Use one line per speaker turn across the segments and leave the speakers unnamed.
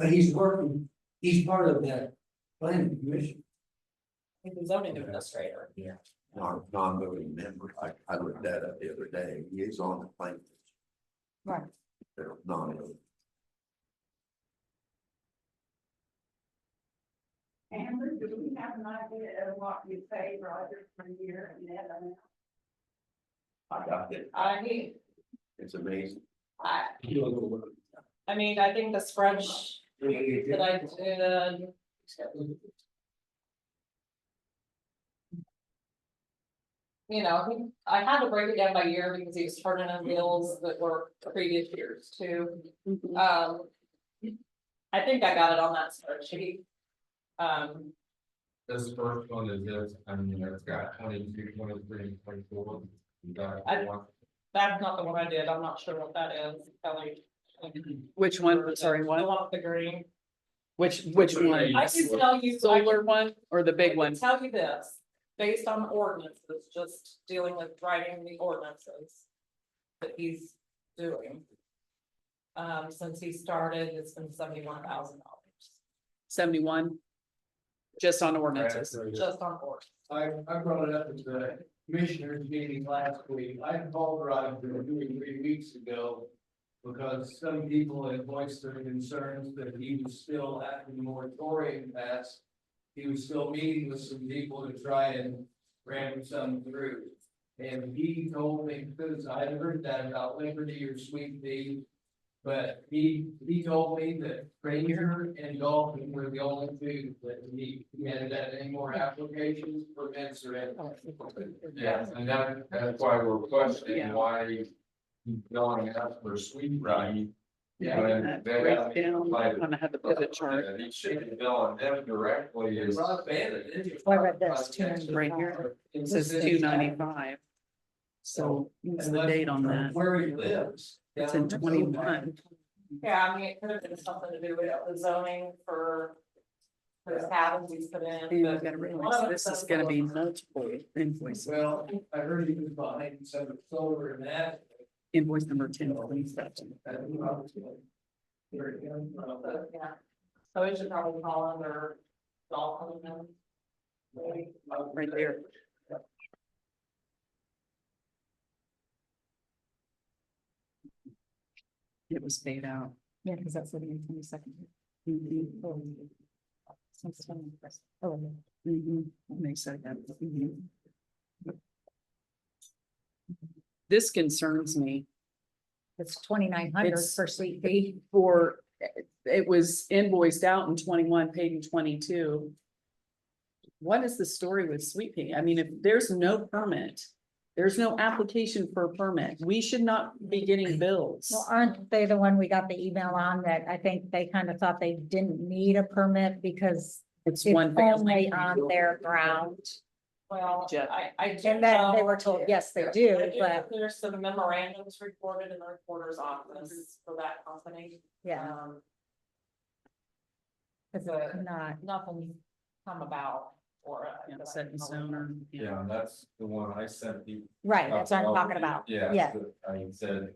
But he's working, he's part of that planning commission.
He's the zoning administrator. Yeah.
non, non-voting member, I, I looked that up the other day, he is on the plaintiff.
Right.
They're non,
Amber, do we have an idea of what you pay Roger per year and uh, that amount?
I got it,
I mean,
it's amazing.
I,
You know, the work.
I mean, I think the spreadsheet that I did, you know, he- I had to break it down by year because he was turning in bills that were previous years too. Um. I think I got it on that spreadsheet. Um,
This first one is this, I mean, it's got 22, 23, 24. You got
I-
one.
that's not the one I did. I'm not sure what that is, Kelly.
Which one, sorry,
The
one,
one with the green.
which, which one?
I can tell you. I can
Solar one or the big one?
I can Tell you this, based on ordinances, just dealing with writing the ordinances that he's doing. Um, since he started, it's been seventy-one thousand dollars,
Seventy-one? Just on ordinances.
just on ordinance.
I, I brought it up at the commissioners meeting last week. I called Roger two or three weeks ago. Because some people had voiced their concerns that he was still after the moratorium passed. He was still meeting with some people to try and ram some through. And he told me, because I had heard that about Liberty or Sweet Bee. But he, he told me that Ranger and Dolphin were the only two that he, he had had any more applications, permits or anything.
Yeah, and that, that's why we're questioning
Yeah.
why he's going out for sweet. Right.
Yeah.
But they
Break
got.
down,
like-
I'm gonna have the pivot chart
Yeah, He should be billing them directly is.
Rob Bannon, didn't you?
I read this, two
right here. It says two ninety-five. So what's the date on that?
Where he lives.
It's in
down in
twenty-one.
Yeah, I mean, it could have been something to do with the zoning for. For his habits he's put in,
And you
but.
gotta realize this is gonna be multiple
Oklahoma.
invoice,
Well, I heard he was behind some of the solar and that.
invoice number ten, please.
and he obviously- Where he comes from, but-
Yeah, so we should probably call under Dalton and. Maybe.
Right there. It was paid out.
Yeah, because that's living in twenty second.
Mhm,
Oh,
mhm. Makes that happen. Mhm. This concerns me
it's twenty nine hundred
It's-
for sweet pea.
for, it was invoiced out in twenty-one, paid in twenty-two. What is the story with Sweet Pea? I mean, if there's no permit, there's no application for a permit, we should not be getting bills.
Well, aren't they the one we got the email on that I think they kind of thought they didn't need a permit because
It's
it's
one family.
only on their ground.
Well,
Jeff.
I, I. do
And then they
know-
were told, yes, they do, but
There's some memorandums recorded in the recorder's office for that company.
yeah,
Um,
it's
But-
not.
nothing's come about or. uh,
Yeah,
that I
Set in
can
stone or.
Yeah, that's the one I sent you.
Right, that's what I'm talking about.
Uh, Yeah.
Yeah.
so I said.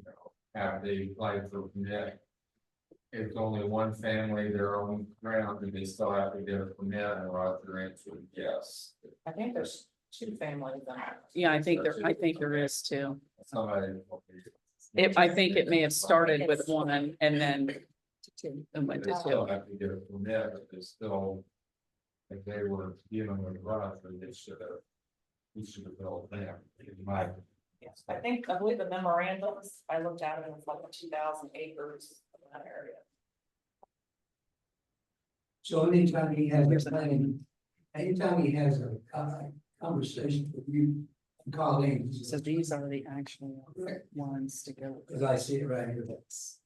You know, have they applied for permit? If it's only one family, their own ground, do they still have to get a permit and Roger answered yes.
I think there's two families in that.
Yeah, I think there, I think there is too.
Somebody.
It, I think it may have started with one and then it went
They
to
still
two.
have to get a permit, but they still. If they were dealing with Roger, they should have. We should have built them, in my.
Yes, I think, I believe the memorandums, I looked at it, and it's like two thousand acres in that area.
So anytime he has a planning, anytime he has a co- conversation with you, and colleagues,
So these are the actual ones to go. with
because I see it right here.
this.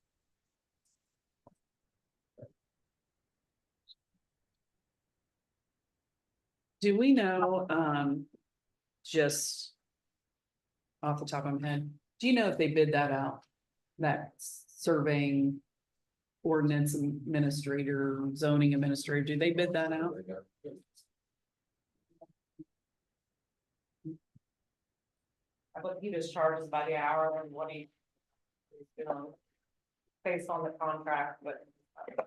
Do we know, um, just off the top of my head, do you know if they bid that out? That surveying ordinance administrator, zoning administrator, do they bid that out?
I believe he just charges by the hour and what he. You know. Based on the contract, but